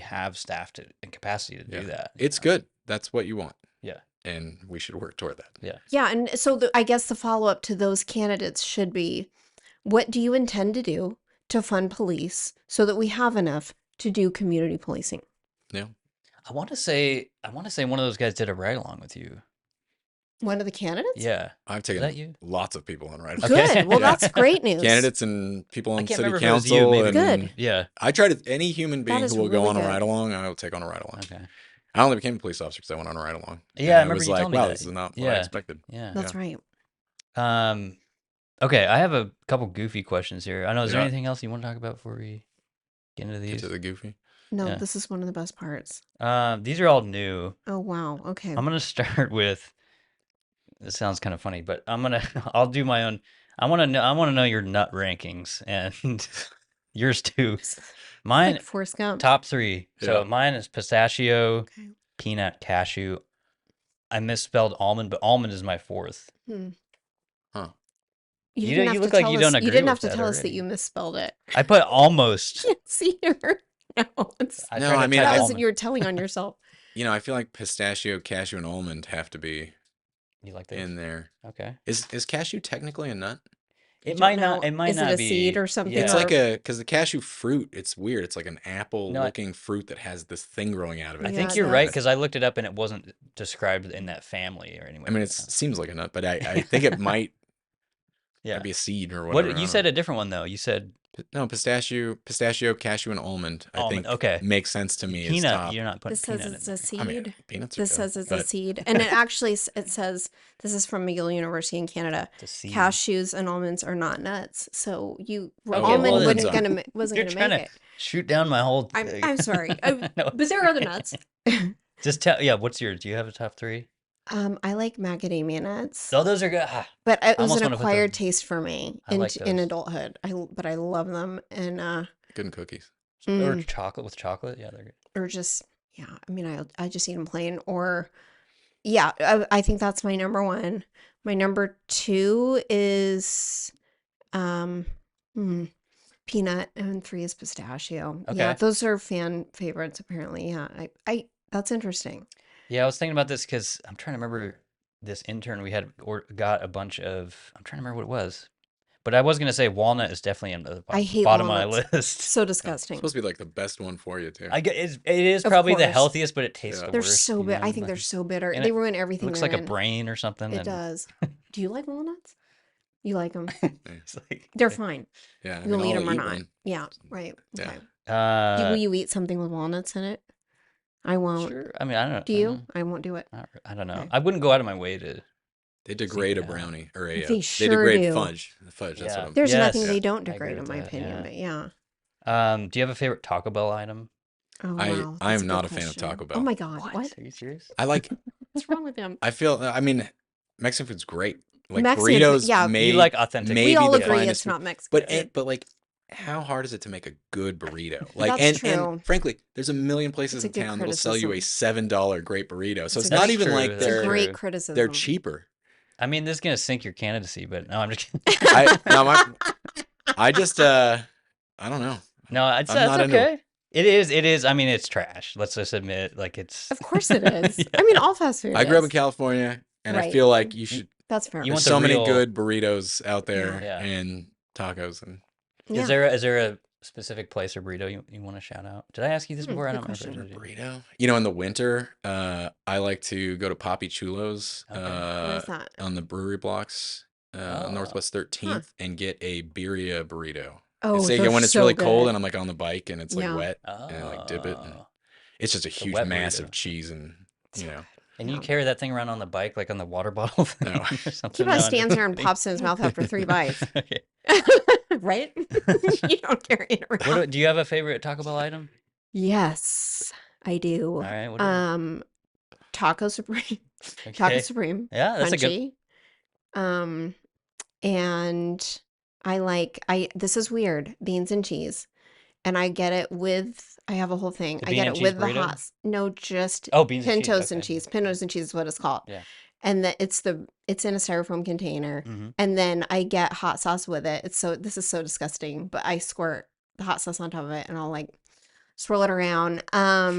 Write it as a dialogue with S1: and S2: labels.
S1: have staff to and capacity to do that. you
S2: It's
S1: know?
S2: good. That's what you want.
S1: Yeah.
S2: And we should work toward that.
S3: Yeah, and uh, so the, I guess the follow up to those candidates should be what do you intend to do to fund police so that we have enough to do community policing?
S1: I want to say I want to say one of those guys did a ride along with you.
S3: One of the candidates?
S1: Yeah,
S2: I've
S1: is that
S2: taken
S1: you?
S2: lots of people on ride
S1: Okay.
S3: Good. Well,
S2: Yeah.
S3: that's great news.
S2: candidates and people on
S1: can't
S2: city
S1: remember if it was you,
S2: council.
S1: maybe.
S2: and
S3: Good.
S1: Yeah.
S2: I try to any human being
S3: is
S2: who will go
S3: really
S2: on a
S3: good.
S2: ride along, I will take on a ride along.
S1: Okay.
S2: I only became a police officer because I went on a ride along.
S1: Yeah,
S2: And
S1: I remember
S2: was
S1: you
S2: like,
S1: telling me
S2: wow,
S1: that.
S2: this is not what I
S1: Yeah.
S2: expected.
S1: Yeah.
S3: That's right.
S1: Um, okay, I have a couple goofy questions here. I know. Is there
S2: Yeah.
S1: anything else you want to talk about before we get into
S2: Get
S1: these?
S2: to the goofy.
S3: No,
S1: Yeah.
S3: this is one of the best parts.
S1: Um, these are all new.
S3: Oh, wow. Okay.
S1: I'm gonna start with. This sounds kind of funny, but I'm gonna. I'll do my own. I want to know. I want to know your nut rankings and yours too. Mine
S3: like Forrest Gump.
S1: top three. So
S2: Yeah.
S1: mine is pistachio,
S3: Okay.
S1: peanut, cashew. I misspelled almond, but almond is my fourth. You
S3: didn't
S1: don't- you
S3: have to
S1: look like
S3: tell
S1: you don't
S3: us-
S1: agree
S3: You didn't have
S1: with
S3: to
S1: that
S3: tell us that
S1: already.
S3: you misspelled it.
S1: I put almost.
S3: Can't see here. No, it's,
S1: I
S2: No,
S1: tried to
S2: I mean,
S1: type
S2: I-
S3: that was
S1: almond.
S3: you were telling on yourself.
S2: You know, I feel like pistachio, cashew, and almond have to be
S1: You like
S2: in
S1: that?
S2: there.
S1: Okay.
S2: Is is cashew technically a nut?
S1: It
S3: don't
S1: might not.
S3: know.
S1: It might
S3: Is it
S1: not
S3: a
S1: be
S3: seed or something
S2: It's
S1: Yeah.
S2: like a because the cashew fruit. It's weird. It's like an apple-looking fruit that has this thing growing out of it.
S1: I
S3: Yeah,
S1: think
S3: it
S1: you're right
S3: does.
S1: because I looked it up and it wasn't described in that family or anywhere.
S2: I mean,
S1: like
S2: it
S1: that.
S2: seems like a nut, but I, I think it might
S1: yeah.
S2: be a seed or whatever.
S1: What you said a different one though. You said
S2: it. No, pistachio, pistachio, cashew, and almond. I
S1: Almond,
S2: think
S1: okay.
S2: makes sense to me. as
S1: peanut.
S2: top.
S1: You're not putting
S3: This
S1: peanut
S3: says
S1: in
S3: it's a
S1: there.
S3: seed.
S2: I mean, peanuts. Are
S3: this
S2: good,
S3: says it's a
S2: but-
S3: seed, and it actually s- it says this is from McGill University in Canada.
S1: It's a seed.
S3: Cashews and almonds are not nuts, so you were
S1: Okay, well,
S3: almond
S1: then-
S3: wasn't gonna ma- wasn't
S1: You're
S3: gonna
S1: trying
S3: make
S1: to shoot down my whole.
S3: I'm-
S1: thing.
S3: I'm sorry. I-
S1: No,
S3: it. But there are other nuts.
S1: Just tell. Yeah. What's your? Do you have a top three?
S3: Um, I like macadamia nuts,
S1: So those are good. Ah,
S3: but it was
S1: almost
S3: an
S1: wanna put them-
S3: acquired taste for me
S1: I
S3: in,
S1: like
S3: in
S1: those.
S3: adulthood. I l- but I love them, and uh,
S2: Good in cookies.
S1: Or
S3: mm,
S1: chocolate with chocolate. Yeah, they're good.
S3: or just yeah. I mean, I I just eat them plain, or yeah. I, I think that's my number one. My number two is um hmm, peanut, and three is pistachio. Yeah,
S1: Okay.
S3: those are fan favorites apparently. Yeah, I I that's interesting.
S1: Yeah, I was thinking about this because I'm trying to remember this intern we had or got a bunch of. I'm trying to remember what it was, but I was gonna say walnut is definitely in the bo-
S3: I hate
S1: bottom of
S3: walnuts.
S1: my list.
S3: So
S2: Yeah, it's
S3: disgusting.
S2: supposed to be like the best one for you too.
S1: I get it's, it is
S3: Of
S1: probably the
S3: course.
S1: healthiest, but it tastes
S2: Yeah.
S1: the
S3: They're
S1: worst.
S3: so
S1: you
S3: bitter.
S1: know,
S3: I think
S1: like,
S3: they're so bitter.
S1: and
S3: they
S1: it
S3: ruin
S1: it
S3: everything.
S1: looks
S3: they're
S1: like a
S3: in.
S1: brain or something.
S3: It
S1: and
S3: does. Do you like walnuts? You like them?
S1: It's like,
S3: They're fine.
S2: yeah, I mean,
S3: You'll eat
S2: I'll
S3: them or
S2: eat
S3: not.
S2: one.
S3: Yeah. Right.
S2: Yeah.
S3: Okay. Do-
S1: Uh,
S3: Will you eat something with walnuts in it? I won't.
S1: sure. I mean, I don't.
S3: Do
S1: I
S3: you?
S2: Um,
S1: don't-
S3: I won't do it.
S1: not re- I don't know.
S3: Okay.
S1: I wouldn't go out of my way to.
S2: They degrade a
S1: out.
S2: brownie or a. uh,
S3: They sure
S2: degrade
S3: do.
S2: fudge. Fudge. That's
S1: Yeah.
S2: what I'm.
S3: There's
S1: Yes.
S3: nothing they don't
S1: I agree
S3: degrade, in
S1: with
S3: my
S1: that,
S3: opinion.
S1: yeah.
S3: But yeah.
S1: Um, do you have a favorite Taco Bell item?
S3: Oh,
S2: I-
S3: wow.
S2: I
S3: that's
S2: am
S3: good
S2: not a fan of
S3: question.
S2: Taco
S3: Oh
S2: Bell.
S3: my God. What?
S1: Are you serious?
S2: I like.
S3: What's wrong with them?
S2: I feel. I mean, Mexican food's great. Like
S3: Mexican food-
S2: burritos.
S3: yeah. You
S2: made,
S1: you like authentic?
S2: maybe
S3: we all
S2: the
S3: agree
S2: finest
S3: it's not Mexican.
S2: But
S3: food.
S2: and, but like, how hard is it to make a good burrito? Like, and,
S3: That's true.
S2: and frankly, there's a million places
S3: a
S2: in
S3: good
S2: town that'll sell you a
S3: criticism.
S2: seven dollar great burrito. So
S3: It's
S2: it's,
S3: a
S2: not
S1: good-
S2: even
S1: That's
S2: like
S1: true,
S3: it's
S1: that's
S2: they're
S3: a great
S1: they're
S3: criticism.
S2: they're cheaper.
S1: I mean, this is gonna sink your candidacy, but no, I'm just kidding.
S2: I no, my, I just uh, I don't know.
S1: No, it's, uh,
S2: I'm
S1: it's
S2: not into it.
S1: okay. It is. It is. I mean, it's trash. Let's just admit, like it's.
S3: Of course it is.
S1: Yeah.
S3: I mean, all fast food.
S2: I grew up
S3: is.
S2: in California, and I
S3: Right.
S2: feel like you should.
S3: That's fair.
S1: You
S2: there's
S1: want the
S2: so many
S1: real-
S2: good burritos out there
S1: Yeah.
S2: and tacos and
S3: Yeah.
S1: Is there is there a specific place or burrito you, you want to shout out? Did I ask you this
S3: Hmm,
S1: before? I
S3: good
S1: don't remember. if I
S3: question.
S1: did.
S2: burrito. You know, in the winter, uh, I like to go to Poppy Chulo's.
S1: Okay.
S2: Uh,
S3: Where's that?
S2: on the brewery blocks, uh,
S1: Oh.
S2: Northwest 13th, and get a birria burrito.
S3: Oh,
S2: it's like
S3: they're
S2: when it's
S3: so
S2: really cold
S3: good.
S2: and I'm like on the bike and it's like
S3: Yeah.
S2: wet.
S1: Oh.
S2: And, like, dip it and- It's just a huge
S1: wet
S2: mass of
S1: burrito.
S2: cheese and, you know,
S1: And you
S3: Yeah.
S1: carry that thing around on the bike, like on the water bottle thing
S2: No.
S1: or something.
S3: He probably
S1: No, I
S3: stands there
S1: don't
S3: and
S1: think-
S3: pops in his mouth after three bites.
S1: Yeah.
S3: right? you don't carry it around.
S1: What do, do you have a favorite Taco Bell item?
S3: yes, I do.
S1: All right. What do you-
S3: Um, Taco Supreme. Taco
S1: okay.
S3: Supreme.
S1: Yeah, that's a good.
S3: crunchy. Um, and I like I. This is weird. Beans and cheese, and I get it with. I have a whole thing.
S1: The
S3: I
S1: bean
S3: get
S1: and
S3: it
S1: cheese
S3: with the
S1: burrito?
S3: hot. s- No, just
S1: Oh, beans and cheese.
S3: pintos and cheese. Pintos and cheese is what it's called.
S1: Yeah.
S3: And that it's the it's in a styrofoam container.
S1: hmm
S3: and then I get hot sauce with it. It's so this is so disgusting, but I squirt the hot sauce on top of it, and I'll like swirl it around. Um,